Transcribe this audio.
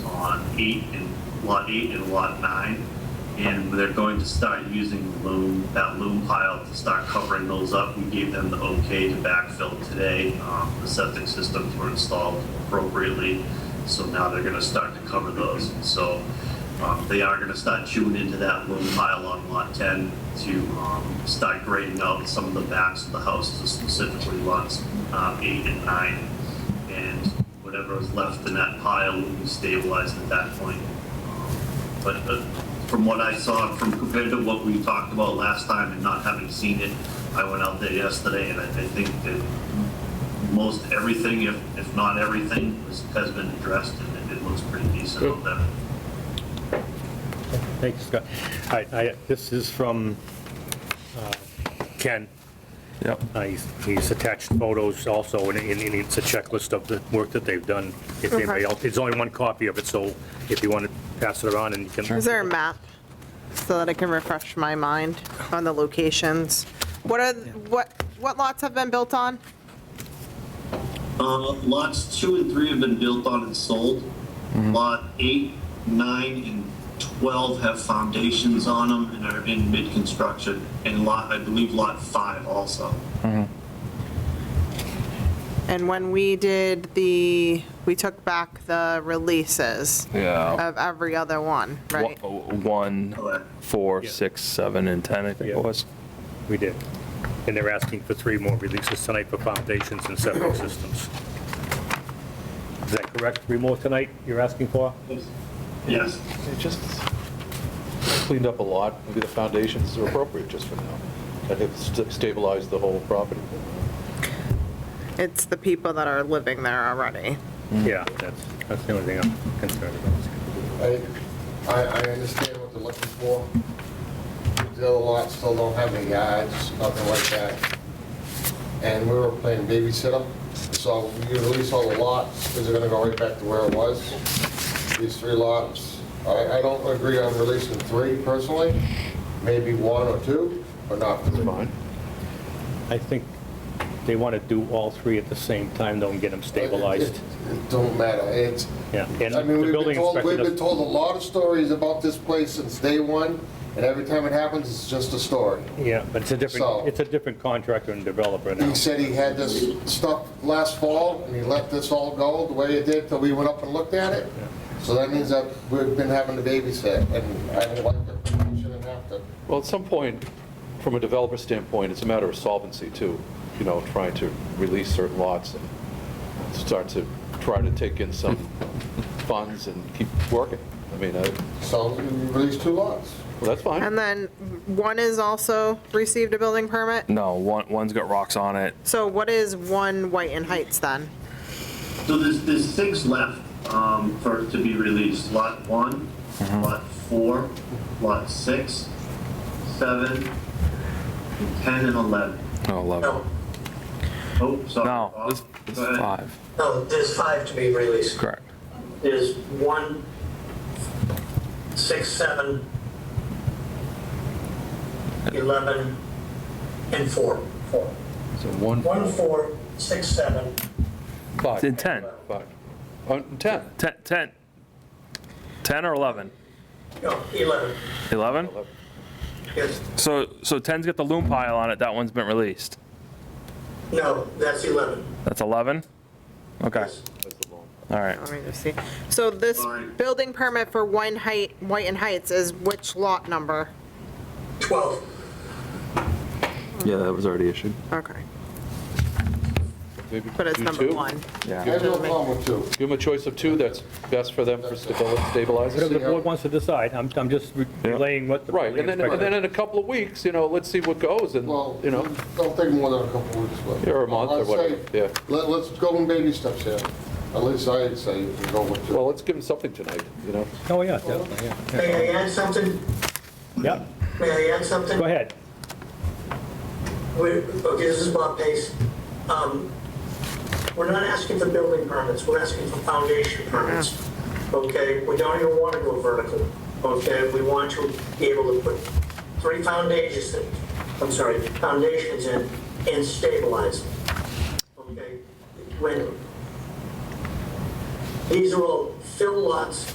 eight and lot eight and lot nine. And they're going to start using the loom, that loom pile to start covering those up. We gave them the okay to backfill today. Um, the septic systems were installed appropriately. So now they're gonna start to cover those. So, um, they are gonna start chewing into that loom pile on lot ten to, um, start grading out some of the backs of the houses, specifically lots, uh, eight and nine and whatever was left in that pile will be stabilized at that point. Um, But uh, from what I saw, from compared to what we talked about last time and not having seen it, I went out there yesterday and I I think that most everything, if, if not everything, was- has been addressed and it- it looks pretty decent out there. Thanks, Scott. All right, I, this is from uh, Ken. Yep. Uh, He's he's attached photos also, and and- and it's a checklist of the work that they've done. If anybody Okay. else, it's only one copy of it, so if you want to pass it around and you can. Is there a map so that I can refresh my mind on the locations? What are, what, what lots have been built on? Uh, Lots two and three have been built on and sold. Mm-hmm. Lot eight, nine, and 12 have foundations on them and are in mid-construction. And lot, I believe lot five also. And when we did the, we took back the releases Yeah. of every other one, right? One, Correct. four, six, seven, and 10, I think Yeah. it was. We did. And they're asking for three more releases tonight for foundations and septic systems. Is that correct? Three more tonight you're asking for? Yes. It just cleaned up a lot. Maybe the foundations are appropriate just for now. And it st- stabilized the whole property. It's the people that are living there already. Yeah, that's, that's the only thing I'm concerned about. I, I, I understand what they're looking for. The other lots still don't have any yards, nothing like that. And we were playing babysitter, so you release all the lots, is it gonna go right back to where it was? These three lots, I, I don't agree on releasing three personally, maybe one or two, but not three. I think they want to do all three at the same time, though, and get them It- stabilized. It it don't matter, it's, Yeah, and Oh, I the mean, we've been building told, inspector we've been does, told a lot of stories about this place since day one, and every time it happens, it's just a story. yeah, but it's a different, So- it's a different contractor and developer now. He said he had this stuff last fall, and he let this all go the way it did till we went up and looked at it. So that means that we've been having to babysit, and I don't like it, we shouldn't have to. Well, at some point, from a developer standpoint, it's a matter of solvency too, you know, trying to release certain lots and start to try to take in some funds and keep working. I mean, I- So we released two lots. well, that's And fine. then one is also received a building permit? No, one, one's got rocks on it. So what is one White and Heights then? So there's, there's six left um, for, to be released. Lot one, Mm-hmm. lot four, lot six, seven, and 10 and 11. No, 11. No, Oh, sorry. No, Bob. this, this Go is ahead. five. no, there's five to be released. Correct. There's one, six, seven, 11, and four. Four. So one, One, four, six, seven, It's in five, 10. five. Uh, 10, 10, 10. 10 or 11? no, 11. 11? Yes, So, so 10's got the loom pile on it, that one's been released. no, that's 11. That's 11? Okay, Yes. all right. Let me just see. So this Alright. building permit for White and Height, White and Heights is which lot number? 12. Yeah, that was already issued. Okay, Maybe but it's do number two. one. I have no problem with two. Give them a choice of two that's best for them for stabil- stabilizing. Whatever the board wants to decide, I'm, I'm just re- relaying what the Right, building and then, and then inspector. in a couple of weeks, you know, let's see what goes and, Well, you know, don't take more than a couple weeks. but- Yeah, or a month or I'd say, whatever, yeah. Let, let's go in baby steps here. At least I'd say we go with two. well, let's give them something tonight, you know? Oh, yeah, definitely, yeah. May I add something? yeah. May I add something? Go ahead. We're, okay, this is Bob Pace. Um, We're not asking for building permits, we're asking for foundation permits. Okay, we don't even want to go vertical, okay? We want to be able to put three foundations, in- I'm sorry, foundations in and stabilize them. Okay? When, these are all fill lots